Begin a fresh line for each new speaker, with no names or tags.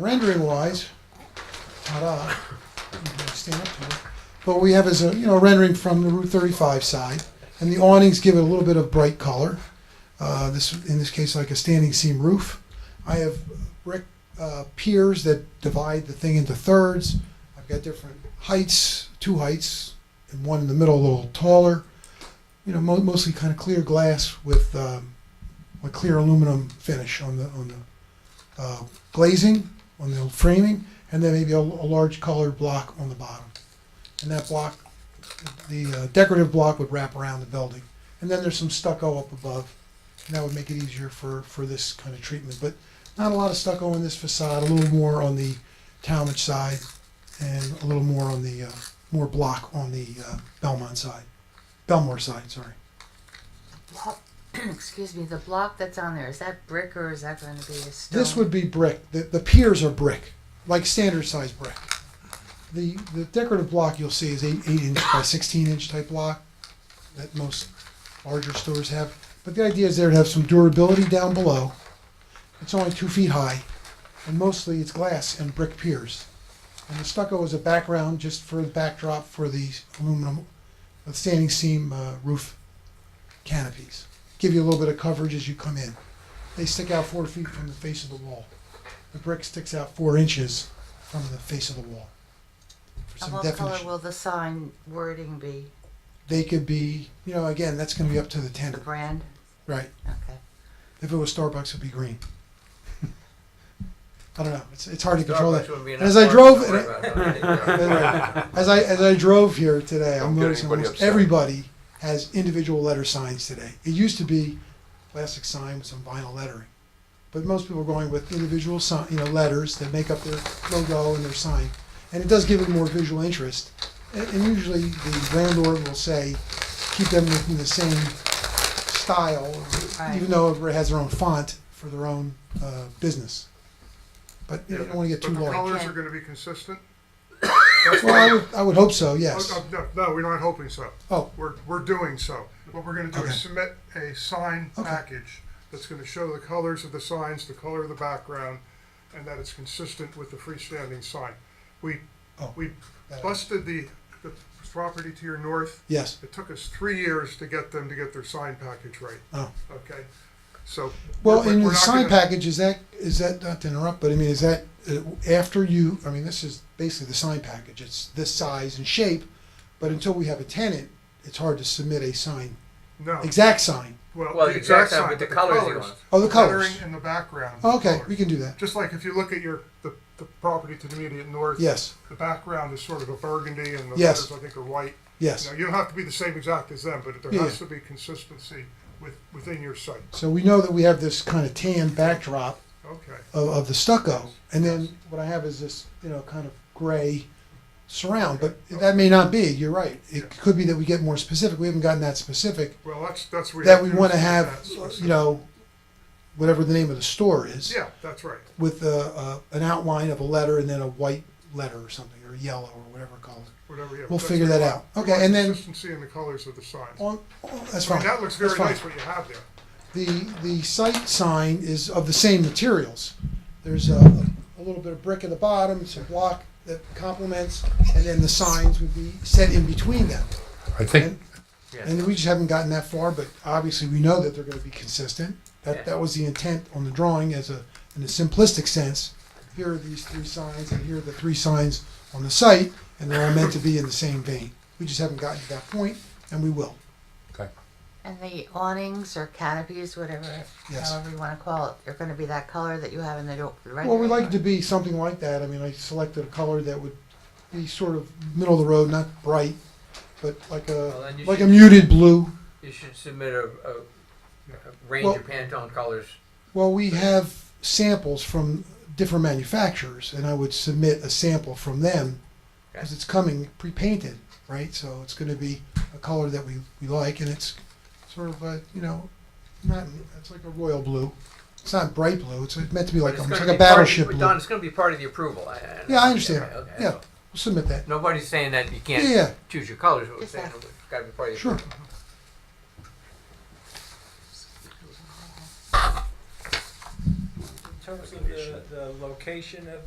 rendering wise, ta-da, you can stand up to it. What we have is a, you know, rendering from the Route 35 side, and the awnings give it a little bit of bright color. Uh, this, in this case, like a standing seam roof. I have brick uh, piers that divide the thing into thirds. I've got different heights, two heights, and one in the middle a little taller. You know, mo- mostly kind of clear glass with um, a clear aluminum finish on the on the uh, glazing on the framing, and then maybe a, a large colored block on the bottom. And that block, the uh, decorative block, would wrap around the building. And then there's some stucco up above, and that would make it easier for for this kind of treatment. But not a lot of stucco on this facade. A little more on the Talmadge side, and a little more on the uh, more block on the uh, Belmont side, Belmore side. Sorry.
block, excuse me, the block that's on there, is that brick or is that going to be a stone?
This would be brick. The, the piers are brick, like standard size brick. The the decorative block you'll see is eight, eight inch by sixteen inch type block that most larger stores have. But the idea is there to have some durability down below. It's only two feet high, and mostly it's glass and brick piers. And the stucco is a background just for the backdrop for the aluminum, the standing seam uh, roof canopies. Give you a little bit of coverage as you come in they stick out four feet from the face of the wall. The brick sticks out four inches from the face of the wall. For
And
some
what color
definition,
will the sign wording be?
they could be, you know, again, that's going to be up to the
The
tenant,
brand?
right?
Okay.
If it was Starbucks, it'd be green. I don't know. It's, it's hard to control that.
Starbucks would be
And as
enough
I
parking,
drove-
don't worry about it.
Anyway, as I as I drove here today,
Don't
I'm
get
noticing
anybody
almost
upset.
everybody has individual letter signs today. It used to be plastic sign with some vinyl lettering, but most people are going with individual sign, you know, letters that make up their logo and their sign, and it does give it more visual interest. And, and usually, the landlord will say, keep them within the same style,
Right.
even though everybody has their own font for their own uh, business. But you don't want to get too
But the
large.
colors
Okay.
are gonna be consistent?
Well, I would, I would hope so. Yes.
Oh, oh, No, no, we're not hoping so.
Oh.
We're, we're doing so. What we're gonna do
Okay.
is submit a sign
Okay.
package that's gonna show the colors of the signs, the color of the background, and that it's consistent with the freestanding sign. We,
Oh.
we busted the, the property to your north.
Yes.
It took us three years to get them to get their sign package right,
Oh.
okay? So.
Well,
we're-
in
we're
the
not
sign
gonna-
package, is that is that not to interrupt? But I mean, is that uh, after you? I mean, this is basically the sign package. It's this size and shape, but until we have a tenant, it's hard to submit a sign,
No,
exact sign.
Well,
well,
the
the exact
exact sign,
sign,
but
but
the
the
colors you
colors.
want.
Oh, the colors.
Lettering in the background. the
Oh, okay,
colors.
we can do that.
Just like if you look at your, the, the property to the immediate north.
Yes.
The background is sort of a burgundy and the
Yes.
letters, I think, are white.
Yes.
Now, you don't have to be the same exact as them, but there
Yeah,
has
yeah.
to be consistency with, within your site.
So we know that we have this kind of tan backdrop
Okay.
of, of the stucco, and then what I have is this, you know, kind of gray surround. But that may not be. You're right. It could be that we get more specific. We haven't gotten that specific.
Well, that's, that's. where you
that we
do
want to
see
have,
that specific-
you know, whatever the name of the store is,
Yeah, that's right.
with a, a, an outline of a letter and then a white letter or something, or yellow or whatever color.
Whatever. yeah,
We'll
that's
figure
what we
that
want.
out.
We
Okay,
want
and then-
Consistency in the colors of the signs.
On, on- that's
I mean,
fine.
that looks very
That's fine.
nice, what you have there.
The, the site sign is of the same materials. There's a, a little bit of brick at the bottom, some block that complements, and then the signs would be set in between them.
I think,
Yeah.
And we just haven't gotten that far, but obviously we know that they're going to be consistent. That
Yeah.
that was the intent on the drawing, as a in a simplistic sense. Here are these three signs, and here are the three signs on the site, and they're all meant to be in the same vein. We just haven't gotten to that point, and we will.
okay,
And the awnings or canopies, whatever,
Yes.
however you want to call it, they're going to be that color that you have in the do- the rendering?
Well, we like it to be something like that. I mean, I selected a color that would be sort of middle of the road, not bright, but like
Well,
a
then you
like a
should-
muted blue.
You should submit a, a, a range
Well-
of Pantone colors.
Well, we have samples from different manufacturers, and I would submit a sample from them because it's coming pre-painted, right? So it's going to be a color that we, we like, and it's sort of a you know, not it's like a royal blue. It's not bright blue. It's meant to be like
But
a,
it's
it's like a
gonna be part of-
battleship
but
blue.
Don,
We'll
it's gonna be part of the approval. I-
Yeah, I understand.
okay, okay,
Yeah.
so
submit that.
Nobody's saying that you
Yeah,
can't
yeah,
choose your colors, but we're
Just
saying
that.
it's gotta be part of the.
sure.
In terms of the, the location of